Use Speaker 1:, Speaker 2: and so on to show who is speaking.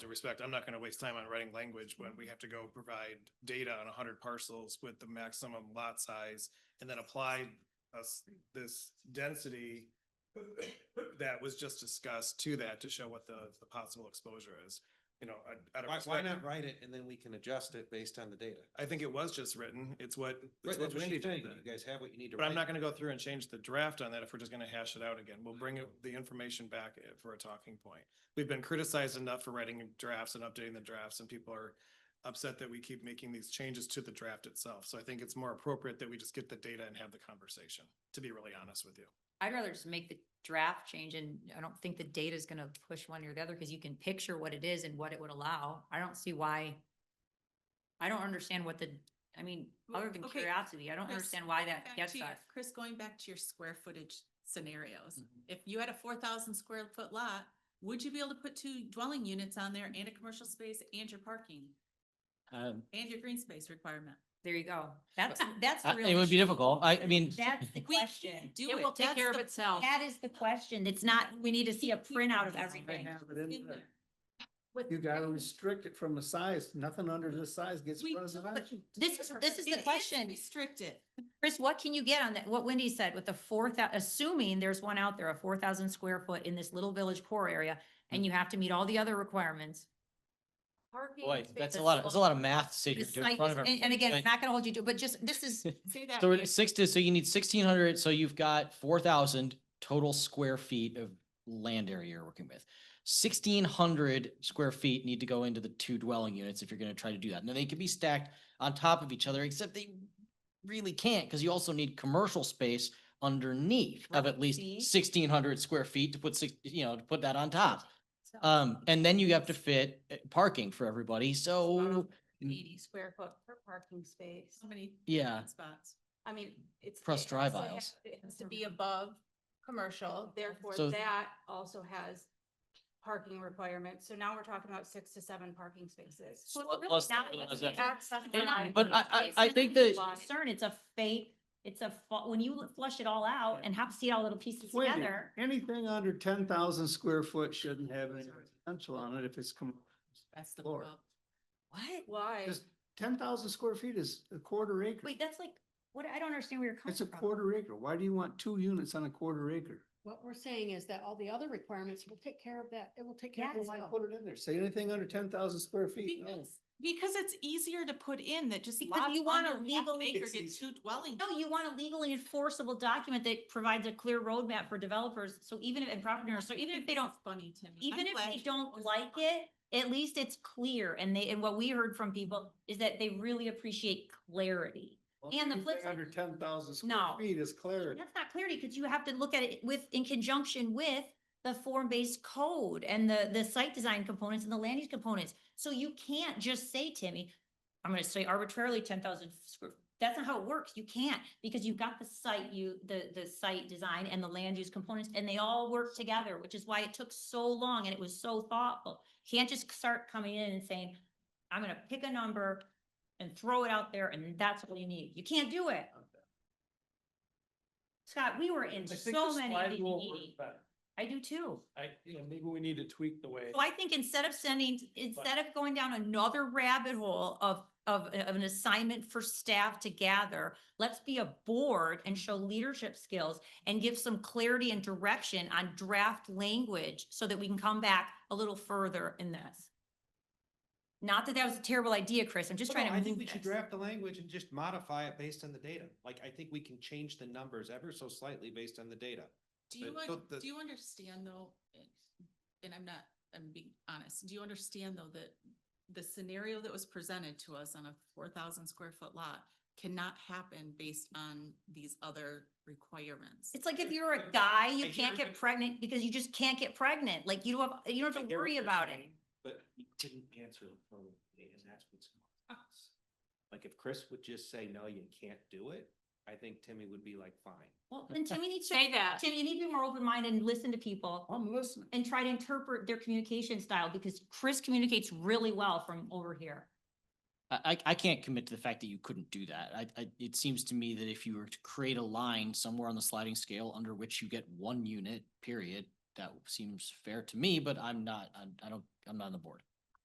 Speaker 1: due respect, I'm not gonna waste time on writing language when
Speaker 2: Mm-hmm.
Speaker 1: we have to go provide data on hundred parcels with the maximum lot size and then apply us this density that was just discussed to that to show what the, the possible exposure is, you know, out- out of
Speaker 2: Why, why
Speaker 1: respect-
Speaker 2: not write it and then we can adjust it based on the data?
Speaker 1: I think it was just written. It's what. it's
Speaker 2: Right,
Speaker 1: what
Speaker 2: that's what
Speaker 1: Wendy
Speaker 2: she's saying.
Speaker 1: did.
Speaker 2: You guys have what you need to.
Speaker 1: But I'm
Speaker 2: write.
Speaker 1: not gonna go through and change the draft on that if we're just gonna hash it out again. We'll bring it- the information back i- for a talking point. We've been criticized enough for writing drafts and updating the drafts and people are upset that we keep making these changes to the draft itself. So I think it's more appropriate that we just get the data and have the conversation, to be really honest with you.
Speaker 3: I'd rather just make the draft change and I don't think the data is gonna push one or the other because you can picture what it is and what it would allow. I don't see why. I don't understand what the, I mean,
Speaker 4: Well,
Speaker 3: other than
Speaker 4: okay,
Speaker 3: curiosity, I don't
Speaker 4: Chris,
Speaker 3: understand why
Speaker 4: going
Speaker 3: that
Speaker 4: back
Speaker 3: gets
Speaker 4: to your-
Speaker 3: us.
Speaker 4: Chris, going back to your square footage scenarios,
Speaker 1: Mhm.
Speaker 3: Mm-hmm.
Speaker 4: if you had a four thousand square foot lot, would you be able to put two dwelling units on there and a commercial space and your parking
Speaker 5: Um,
Speaker 4: and your green space requirement?
Speaker 3: There you go. That's, that's the
Speaker 5: I-
Speaker 3: real.
Speaker 5: It would be
Speaker 3: issue.
Speaker 5: difficult. I, I mean,
Speaker 3: That's the
Speaker 4: We can
Speaker 3: question.
Speaker 4: do
Speaker 3: It
Speaker 4: it.
Speaker 3: will take
Speaker 4: That's
Speaker 3: care of
Speaker 4: the-
Speaker 3: itself. That is the question. It's not, we need to see a printout of everything.
Speaker 4: In there.
Speaker 6: You gotta restrict it from the size, nothing under this size gets
Speaker 4: We
Speaker 6: residential.
Speaker 3: This is, this is
Speaker 4: It
Speaker 3: the question.
Speaker 4: Restricted.
Speaker 3: Chris, what can you get on that? What Wendy said with the four thou, assuming there's one out there, a four thousand square foot in this little village core area, and you have to meet all the other requirements.
Speaker 5: boy, that's a lot, of- that's a lot of math to sit
Speaker 3: The
Speaker 5: here
Speaker 3: site
Speaker 5: in
Speaker 3: is-
Speaker 5: front of our.
Speaker 3: And, and again, it's not gonna hold you to, but just, this is,
Speaker 4: Say that.
Speaker 5: So it's sixty, so you need sixteen hundred, so you've got four thousand total square feet of land area you're working with. Sixteen hundred square feet need to go into the two dwelling units if you're gonna try to do that. Now, they can be stacked on top of each other, except they really can't, because you also need commercial space underneath of at
Speaker 3: see?
Speaker 5: least sixteen hundred square feet to put six, you know, to put that on top. Um, and then you have to fit uh, parking for everybody, so,
Speaker 7: eighty square foot per parking space.
Speaker 4: So many
Speaker 5: yeah,
Speaker 4: spots.
Speaker 7: I mean, it's.
Speaker 5: Plus
Speaker 7: it
Speaker 5: drive
Speaker 7: also
Speaker 5: aisles.
Speaker 7: has- It has to be above commercial, therefore
Speaker 5: So-
Speaker 7: that also has parking requirements. So now we're talking about six to seven parking spaces.
Speaker 3: So it's
Speaker 5: Plus-
Speaker 3: really
Speaker 5: plus
Speaker 3: not
Speaker 5: that-
Speaker 3: even access to
Speaker 7: And-
Speaker 3: that
Speaker 5: but I- I- I
Speaker 3: space.
Speaker 5: think
Speaker 3: That's
Speaker 7: that-
Speaker 3: the Concern, it's a fate, it's a, fa- when you flush it all out and have, see all little pieces
Speaker 6: Wendy,
Speaker 3: together.
Speaker 6: Anything under ten thousand square foot shouldn't have any potential on it if it's com-
Speaker 4: That's the
Speaker 6: Floor.
Speaker 4: club.
Speaker 3: What?
Speaker 7: Why?
Speaker 6: Just ten thousand square feet is a quarter acre.
Speaker 3: Wait, that's like, what, I don't understand where you're coming
Speaker 6: It's a
Speaker 3: from.
Speaker 6: quarter acre. Why do you want two units on a quarter acre?
Speaker 8: What we're saying is that all the other requirements will take care of that. It will take care of
Speaker 3: Yes.
Speaker 6: Why
Speaker 8: itself.
Speaker 6: put it in there? Say anything under ten thousand square feet. No.
Speaker 4: Because because it's easier to put in that just
Speaker 3: Because
Speaker 4: lots
Speaker 3: you want a
Speaker 4: under half an
Speaker 3: legal-
Speaker 4: acre
Speaker 6: It's
Speaker 4: get two dwelling.
Speaker 3: No, you want a legally enforceable document that provides a clear roadmap for developers, so even if, and property owners, so even if they don't,
Speaker 4: Funny to me.
Speaker 3: even
Speaker 4: I'm
Speaker 3: if
Speaker 4: glad
Speaker 3: they
Speaker 4: you
Speaker 3: don't
Speaker 4: was-
Speaker 3: like it, at least it's clear, and they, and what we heard from people is that they really appreciate clarity.
Speaker 6: Well,
Speaker 3: And the
Speaker 6: anything
Speaker 3: flip side-
Speaker 6: Under ten thousand
Speaker 3: No.
Speaker 6: square feet is clarity.
Speaker 3: That's not clarity, because you have to look at it with, in conjunction with the form-based code and the, the site design components and the land use components. So you can't just say, Timmy, I'm gonna say arbitrarily ten thousand square, that's not how it works, you can't, because you've got the site, you, the, the site design and the land use components, and they all work together, which is why it took so long and it was so thoughtful. Can't just start coming in and saying, I'm gonna pick a number and throw it out there, and that's what you need, you can't do it. Scott, we were in so many of these meetings. I do too.
Speaker 9: I, you know, maybe we need to tweak the way.
Speaker 3: So I think instead of sending, instead of going down another rabbit hole of, of, of an assignment for staff to gather, let's be a board and show leadership skills and give some clarity and direction on draft language so that we can come back a little further in this. Not that that was a terrible idea, Chris. I'm just trying
Speaker 2: No,
Speaker 3: to.
Speaker 2: I think we
Speaker 3: move
Speaker 2: should
Speaker 3: this.
Speaker 2: draft the language and just modify it based on the data. Like, I think we can change the numbers ever so slightly based on the data.
Speaker 4: Do you,
Speaker 2: But
Speaker 4: un-
Speaker 2: the-
Speaker 4: do you understand though, and- and I'm not, I'm being honest, do you understand though that the scenario that was presented to us on a four thousand square foot lot cannot happen based on these other requirements?
Speaker 3: It's like if you're a guy,
Speaker 2: I
Speaker 3: you
Speaker 2: hear
Speaker 3: can't
Speaker 2: you.
Speaker 3: get pregnant because you just can't get pregnant. Like you don't have, you don't have to worry about it.
Speaker 2: But he couldn't answer the phone, and that's what's causing us. Like, if Chris would just say, no, you can't do it, I think Timmy would be like, fine.
Speaker 3: Well, then Timmy needs to,
Speaker 7: Say that.
Speaker 3: Tim, you need to be more open-minded and listen to people
Speaker 6: I'm listening.
Speaker 3: and try to interpret their communication style because Chris communicates really well from over here.
Speaker 5: I, I, I can't commit to the fact that you couldn't do that. I, I, it seems to me that if you were to create a line somewhere on the sliding scale under which you get one unit, period, that seems fair to me, but I'm not, I'm, I don't, I'm not on the board.